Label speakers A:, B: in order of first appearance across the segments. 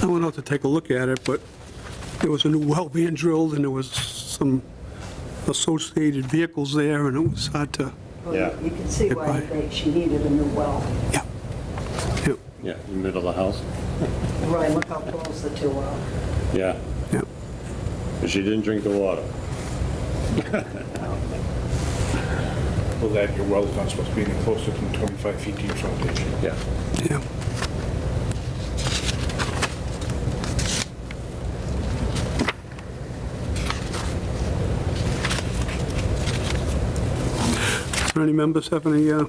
A: I went out to take a look at it, but there was a new well being drilled, and there was some associated vehicles there, and it was hard to,
B: Well,
C: Yeah.
B: You can see why
A: Right.
B: they- she needed a new well.
A: yeah. Yeah,
C: Yeah, in the middle of the house.
B: Roy, look how close the two are.
C: Yeah,
A: yeah.
C: but she didn't drink the water.
D: Well, that your well's not supposed to be any closer than 25 feet to your foundation.
C: Yeah.
A: yeah. Do any members have any uh,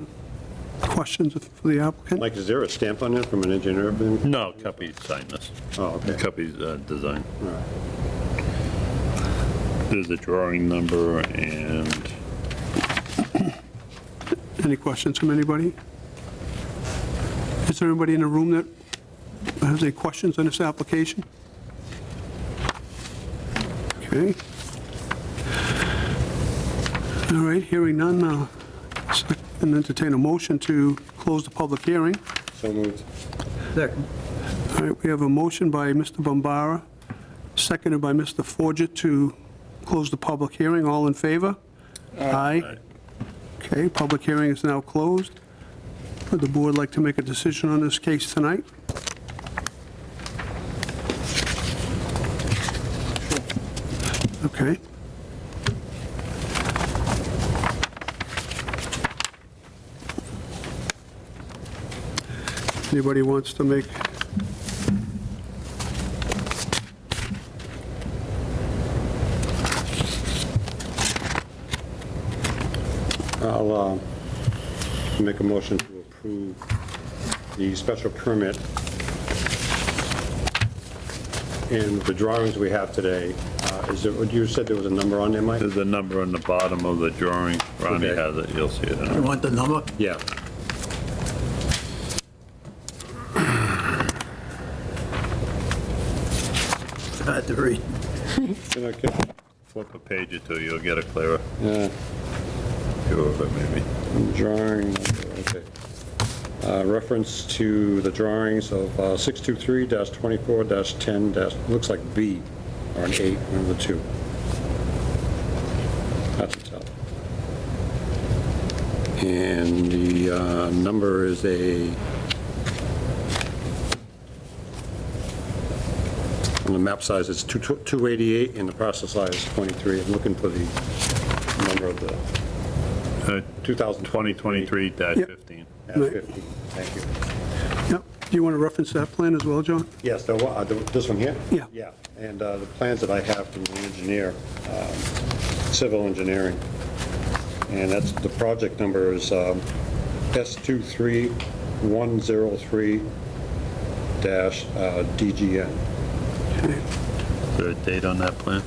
A: questions for the applicant?
C: Mike, is there a stamp on it from an engineer? Ben?
E: No, Cuppy signed this.
C: Oh, okay.
E: Cuppy's uh, design.
C: All right.
E: There's a drawing number and
A: Any questions from anybody? Is there anybody in the room that has any questions on this application? Okay. All right, hearing none, uh, and entertain a motion to close the public hearing.
C: So moved.
A: All right, we have a motion by Mr. Bombara, seconded by Mr. Forget to close the public hearing. All in favor? Aye. Okay, public hearing is now closed. Would the board like to make a decision on this case tonight? Okay. Anybody wants to make
C: I'll um, make a motion to approve the special permit and the drawings we have today. uh, Is there, you said there was a number on there, Mike?
E: there's a number on the bottom of the drawing. Ronnie
C: Okay.
E: has it, you'll see it. in
F: You
E: a-
F: want the number?
C: Yeah.
F: It's hard to read.
C: Can I get-
E: Flip a page or two, you'll get a clearer
C: Yeah.
E: view of it maybe.
C: Drawing, okay. Uh, Reference to the drawings of uh, 623-24-10, dash- looks like B, or an 8, one of the two. That's a tell. And the uh, number is a, on the map size, it's 2 288, and the parcel size is 23. I'm looking for the number of the
E: Uh,
C: 2023.
E: 2023-15.
A: Right.
C: 15, thank you.
A: Yep. Do you want to reference that plan as well, John?
C: Yes, the one- uh, the- this one here?
A: Yeah.
C: Yeah, and uh, the plans that I have from the engineer, um, civil engineering, and that's, the project number is um, S23103-DGN. uh,
E: Is there a date on that plan?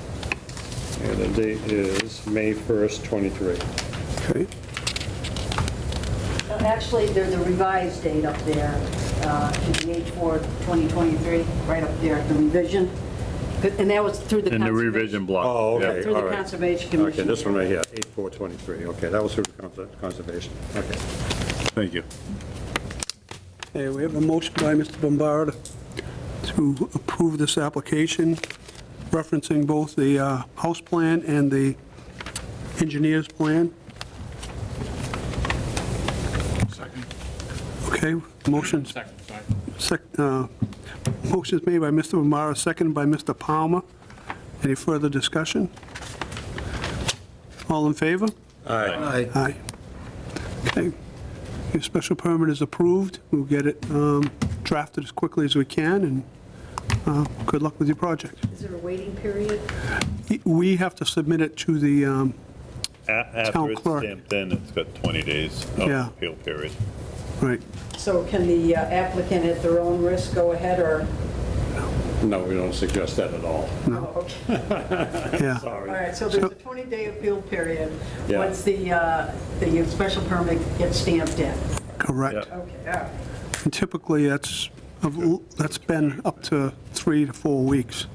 C: And the date is May 1st, 23.
A: Okay.
B: Uh, Actually, there's a revised date up there, uh, to the 8/4/2023, right up there, the revision. And that was through the
E: In the
B: conservation-
E: revision block.
C: Oh,
E: yeah.
C: okay,
B: Through
C: all
B: the
C: right.
B: Conservation Commission.
C: Okay, this one right here, 8423, okay, that was through the cons- conservation, okay.
E: Thank you.
A: Okay, we have a motion by Mr. Bombara to approve this application, referencing both the uh, house plan and the engineer's plan.
D: Second.
A: Okay, motions,
D: Second, sorry.
A: sec- uh, motions made by Mr. Bombara, seconded by Mr. Palmer. Any further discussion? All in favor?
F: Aye.
A: Aye. Okay. Your special permit is approved. We'll get it um, drafted as quickly as we can, and uh, good luck with your project.
B: Is there a waiting period?
A: We have to submit it to the, um,
E: A- After
A: Town
E: it's
A: clerk.
E: stamped in, it's got 20 days of
A: Yeah.
E: appeal period.
A: right,
B: So can the uh, applicant at their own risk go ahead or?
C: No, we don't suggest that at all.
B: No. Oh, Okay.
A: yeah.
C: Sorry.
B: All right, so there's a 20-day appeal period
C: Yeah.
B: once the, uh, the special permit gets stamped in.
A: Correct.
B: Okay, all right.
A: And Typically, that's, that's been up to three to four weeks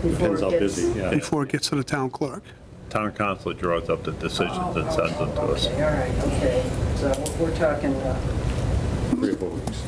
B: Before
C: Depends how
B: it gets.
C: busy, yeah.
A: before it gets to the town clerk.
E: Town council draws up the decisions and
B: Oh,
E: sends them to us.
B: okay, All right, okay. So we're talking, uh,
C: Three or four weeks.